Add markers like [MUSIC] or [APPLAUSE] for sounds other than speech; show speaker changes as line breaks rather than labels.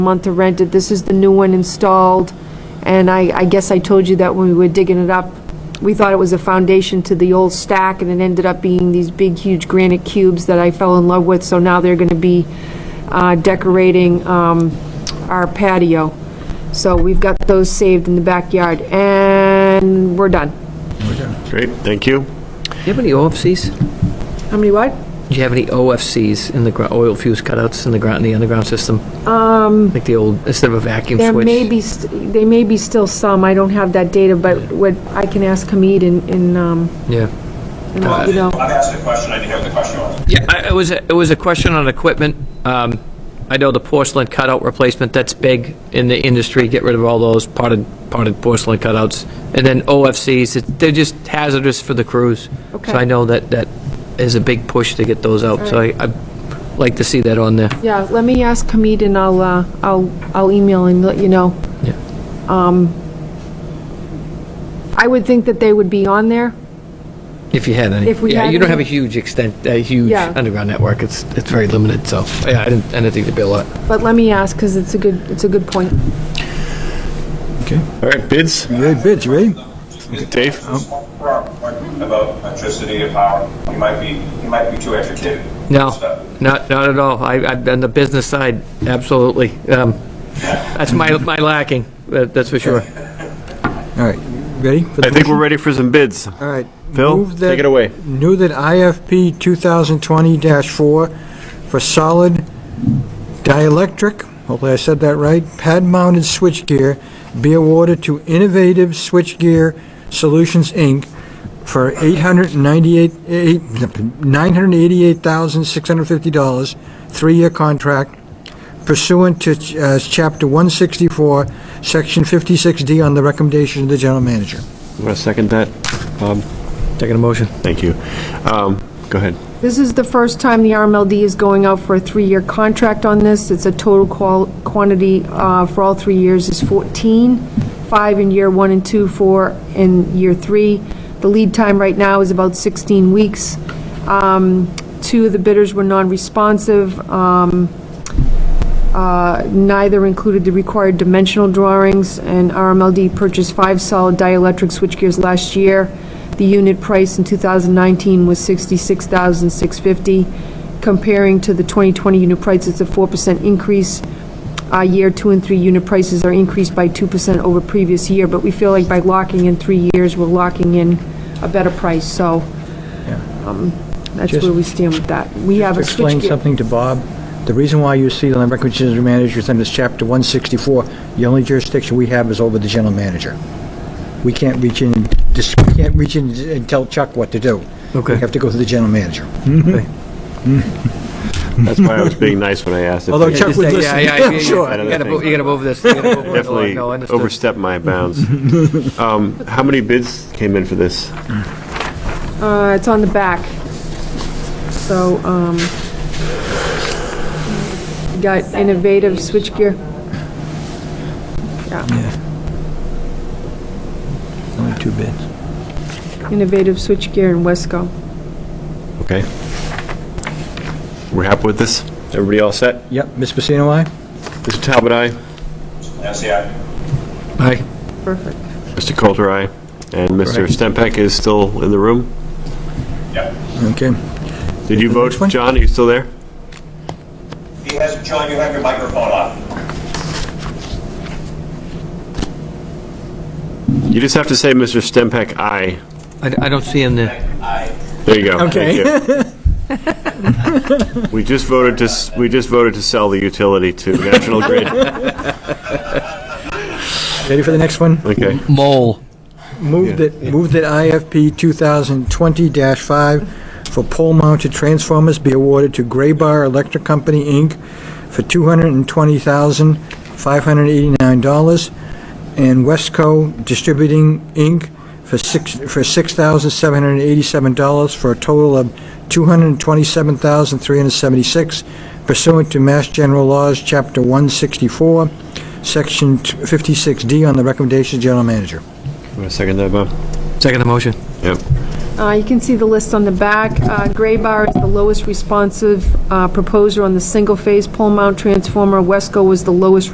month to rent it. This is the new one installed, and I, I guess I told you that when we were digging it up, we thought it was a foundation to the old stack, and it ended up being these big, huge granite cubes that I fell in love with, so now they're gonna be uh, decorating um, our patio. So we've got those saved in the backyard, and we're done.
Great, thank you.
Do you have any OFCs?
How many what?
Do you have any OFCs in the gro- oil fuse cutouts in the ground, in the underground system? Um. Like the old, instead of a vacuum
There
switch?
may be, st- there may be still some, I don't have that data, but what, I can ask Hamid and- and, um,
Yeah.
and let you know.
I've asked a question, I didn't hear what the question was.
Yeah, I- it was, a- it was a question on equipment. Um, I know the porcelain cutout replacement, that's big in the industry, get rid of all those potted, potted porcelain cutouts. And then OFCs, it- they're just hazardous for the crews.
Okay.
So I know that, that is a big push to get those out, so I, I'd like to see that on there.
Yeah, let me ask Hamid and I'll, uh, I'll, I'll email and let you know. Um,
Yeah.
I would think that they would be on there.
If you had any.
If we
Yeah,
had
you don't have a
any.
huge extent, a huge
Yeah.
underground network. It's, it's very limited, so, yeah, I didn't, I didn't think there'd be a lot.
But let me ask, because it's a good, it's a good point.
All right, bids,
You ready, bids, you ready?
Dave?
About electricity and power, you might be, you might be too educated.
No,
So,
not, not at all. I, I've on the business side, absolutely. Um, That's my, my lacking, that- that's for [LAUGHS] sure.
All right, ready? for the
I think
motion?
we're ready for some bids.
All right.
Phil,
move that-
take it away.
Knew that IFP 2020-4 for solid dielectric, hopefully I said that right, pad-mounted switchgear be awarded to Innovative Switchgear Solutions, Inc. for $898 eight- $988,650, three-year contract pursuant to uh, Chapter 164, Section 56D, on the recommendation of the general manager.
I'm going to second that. Bob,
Taking a motion.
thank you. Um, Go ahead.
This is the first time the RMLD is going out for a three-year contract on this. It's a total qual, quantity, uh, for all three years is 14, five in year one and two, four in year three. The lead time right now is about 16 weeks. Um, two of the bidders were non-responsive. Um, uh, Neither included the required dimensional drawings, and RMLD purchased five solid dielectric switchgears last year. The unit price in 2019 was $66,650, comparing to the 2020 unit price, it's a 4% increase. Our year two and three unit prices are increased by 2% over previous year, but we feel like by locking in three years, we're locking in a better price, so um, that's
Just-
where we stand with that. We have a
to explain
switchgear.
something to Bob, the reason why you see the land records manager is under chapter 164, the only jurisdiction we have is over the general manager. We can't reach in, dis- we can't reach in and tell Chuck what to do.
Okay.
We have to go through the general manager.
That's why I was being nice when I asked. if
Although
they-
Chuck would listen.
Yeah, [LAUGHS] yeah, yeah,
Yeah,
yeah.
sure.
You gotta, move- you gotta move this. You gotta move it along.
Oh,
Definitely
No, understood.
overstepped my bounds. Um, How many bids came in for this?
Uh, it's on the back. So, um, you got innovative switchgear. Yeah,
Only two bids.
innovative switchgear in Wesco.
Okay. We're happy with this? Everybody all set?
Yep, Ms. Pacino, aye?
Mr. Talbot, aye.
Nancy, I,
Aye.
Perfect.
Mr. Coulter, aye. And Mr.
Correct.
Stempak is still in the room.
yeah.
Okay.
Did you vote?
Which one?
John, are you still there?
He has, John, you have your microphone on.
You just have to say, Mr. Stempak, aye.
I, I don't see him there.
I,
There you go.
Okay.
Thank you. We just voted to, s- we just voted to sell the utility to National Grid.
Ready for the next one?
Okay.
Mole.
Move that, move that IFP 2020-5 for pole-mounted transformers be awarded to Graybar Electric Company, Inc. for $220,589, and Westco Distributing, Inc. for six for $6,787, for a total of $227,376 pursuant to Mass General Laws, Chapter 164, Section 56D, on the recommendation of the General Manager.
Want to second that, Bob?
Second the motion.
Yep.
Uh, You can see the list on the back. Uh, Gray bar is the lowest responsive uh, proposer on the single-phase pole mount transformer. Wesco was the lowest